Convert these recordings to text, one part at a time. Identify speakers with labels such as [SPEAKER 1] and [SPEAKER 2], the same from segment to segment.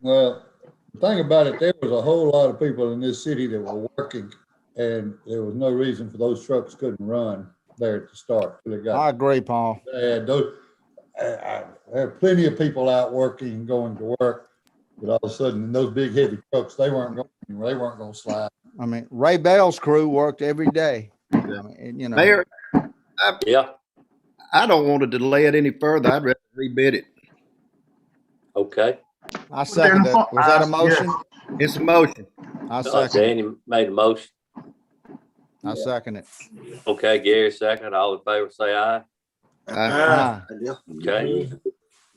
[SPEAKER 1] Well, the thing about it, there was a whole lot of people in this city that were working and there was no reason for those trucks couldn't run there at the start. till it got
[SPEAKER 2] I agree, Paul.
[SPEAKER 1] bad. Those- I- I- there are plenty of people out working and going to work. But all of a sudden, those big heavy trucks, they weren't going, anywhere. they weren't going to slide.
[SPEAKER 2] I mean, Ray Bell's crew worked every day. I mean, and, You know,
[SPEAKER 3] Mayor,
[SPEAKER 4] Yeah,
[SPEAKER 3] I don't want to delay it any further. I'd rather rebid it.
[SPEAKER 4] okay.
[SPEAKER 2] I second that. Was that a motion?
[SPEAKER 3] It's a motion.
[SPEAKER 2] I
[SPEAKER 4] Uh,
[SPEAKER 2] second,
[SPEAKER 4] Danny made a motion.
[SPEAKER 2] I second it.
[SPEAKER 4] Okay, Gary second. All in favor, say aye.
[SPEAKER 3] I-
[SPEAKER 2] Aye.
[SPEAKER 4] Okay,
[SPEAKER 5] And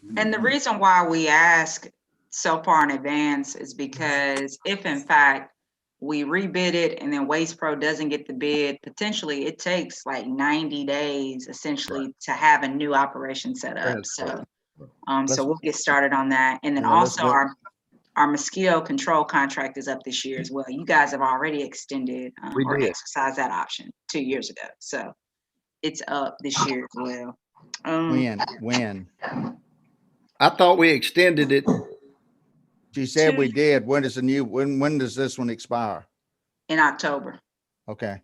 [SPEAKER 3] Mm-hmm.
[SPEAKER 5] the reason why we ask so far in advance is because if in fact we rebid it and then Waste Pro doesn't get the bid, potentially it takes like ninety days essentially to have a new operation set up,
[SPEAKER 3] That's
[SPEAKER 5] so. Um,
[SPEAKER 2] Let's-
[SPEAKER 5] so we'll get started on that. And then
[SPEAKER 2] Yeah, let's
[SPEAKER 5] also
[SPEAKER 2] go-
[SPEAKER 5] our, our mosquito control contract is up this year as well. You guys have already extended um,
[SPEAKER 3] We
[SPEAKER 5] or
[SPEAKER 3] did.
[SPEAKER 5] exercised that option two years ago, so it's up this
[SPEAKER 3] Oh.
[SPEAKER 5] year as well. Um,
[SPEAKER 2] Win, win.
[SPEAKER 3] I thought we extended it.
[SPEAKER 2] She said we did. When does the new, when, when does this one expire?
[SPEAKER 5] in October.
[SPEAKER 2] Okay.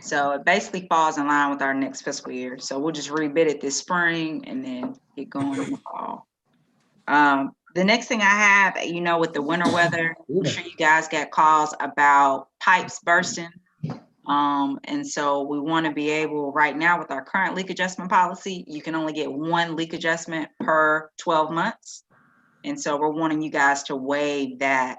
[SPEAKER 5] So it basically falls in line with our next fiscal year. So we'll just rebid it this spring and then get going in the fall. Um, the next thing I have, you know, with the winter weather, I'm sure you guys got calls about pipes bursting. Um, and so we want to be able, right now with our current leak adjustment policy, you can only get one leak adjustment per twelve months. And so we're wanting you guys to waive that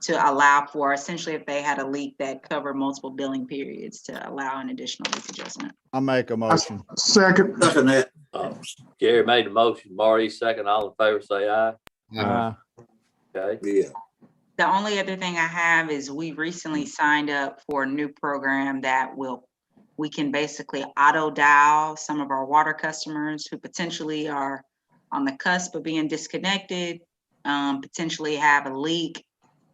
[SPEAKER 5] to allow for essentially if they had a leak that covered multiple billing periods to allow an additional leak adjustment.
[SPEAKER 2] I make a motion.
[SPEAKER 6] Second. Second that.
[SPEAKER 4] uh, Gary made a motion. Marty second. All in favor, say aye.
[SPEAKER 2] Aye.
[SPEAKER 4] Okay,
[SPEAKER 6] Yeah.
[SPEAKER 5] The only other thing I have is we recently signed up for a new program that will, we can basically auto dial some of our water customers who potentially are on the cusp of being disconnected, um, potentially have a leak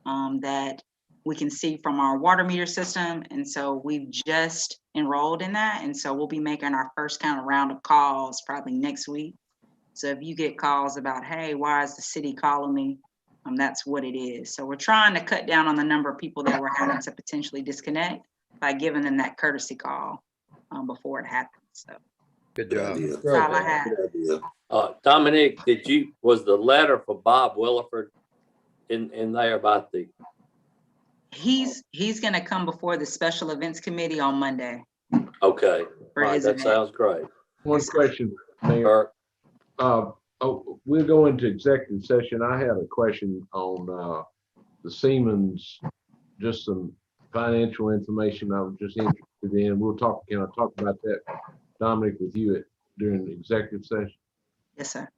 [SPEAKER 5] um, that we can see from our water meter system. And so we've just enrolled in that. And so we'll be making our first kind of round of calls probably next week. So if you get calls about, hey, why is the city calling me? Um, that's what it is. So we're trying to cut down on the number of people that we're having to potentially disconnect by giving them that courtesy call um, before it happens. So
[SPEAKER 3] Good job.
[SPEAKER 5] that's all I have.
[SPEAKER 4] uh, Dominic, did you, was the letter for Bob Williford in, in there about the,
[SPEAKER 5] He's he's gonna come before the special events committee on Monday
[SPEAKER 4] okay, all
[SPEAKER 5] for
[SPEAKER 4] right,
[SPEAKER 5] his
[SPEAKER 4] that
[SPEAKER 5] event.
[SPEAKER 4] sounds great.
[SPEAKER 7] One question, Mayor.
[SPEAKER 4] Kirk,
[SPEAKER 7] Uh, oh, we'll go into executive session. I had a question on, uh, the Siemens, just some financial information I was just interested in. We'll talk, can I talk about that, Dominic, with you at- during the executive session?
[SPEAKER 5] Yes, sir.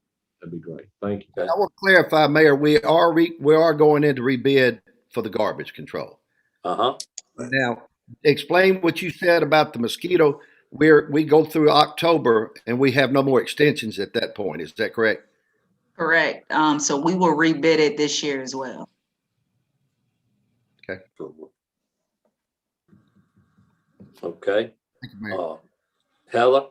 [SPEAKER 7] That'd be great. Thank you.
[SPEAKER 3] I want to clarify, Mayor, we are, re- we are going into rebid for the garbage control.
[SPEAKER 4] uh-huh,
[SPEAKER 3] Now, explain what you said about the mosquito. We're, we go through October and we have no more extensions at that point. Is that correct?
[SPEAKER 5] Correct. Um, so we will rebid it this year as well.
[SPEAKER 4] okay.
[SPEAKER 3] Thank you, Mayor.
[SPEAKER 4] Uh, Heather,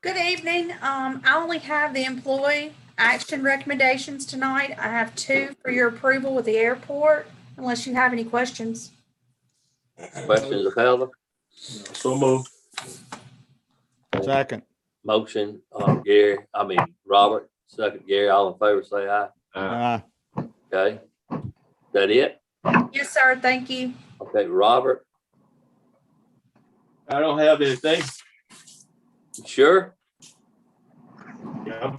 [SPEAKER 8] Good evening. Um, I only have the employee action recommendations tonight. I have two for your approval with the airport, unless you have any questions.
[SPEAKER 4] questions of Heather?
[SPEAKER 6] So moved.
[SPEAKER 2] Second.
[SPEAKER 4] Motion, uh, Gary, I mean, Robert, second Gary, all in favor, say aye.
[SPEAKER 7] Uh,
[SPEAKER 2] Aye.
[SPEAKER 4] Okay. That it?
[SPEAKER 8] Yes, sir. Thank you.
[SPEAKER 4] Okay, Robert,
[SPEAKER 6] I don't have anything.
[SPEAKER 4] sure?
[SPEAKER 6] I'm-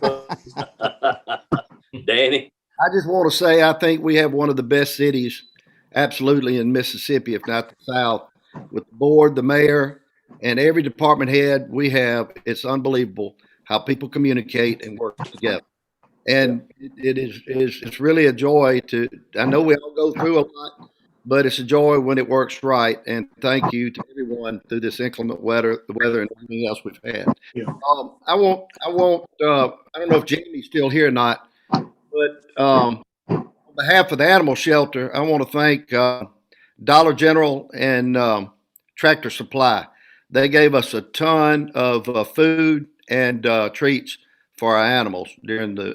[SPEAKER 4] Danny,
[SPEAKER 3] I just want to say, I think we have one of the best cities, absolutely in Mississippi, if not the South, with the board, the mayor, and every department head we have. It's unbelievable how people communicate and work together. And it it is, it is, it's really a joy to, I know we all go through a lot, but it's a joy when it works right. And thank you to everyone through this inclement weather, the weather and everything else we've had.
[SPEAKER 6] Yeah.
[SPEAKER 3] Um, I won't, I won't, uh, I don't know if Jamie's still here or not, but um, on behalf of the animal shelter, I want to thank uh, Dollar General and um, Tractor Supply. They gave us a ton of uh, food and uh, treats for our animals during the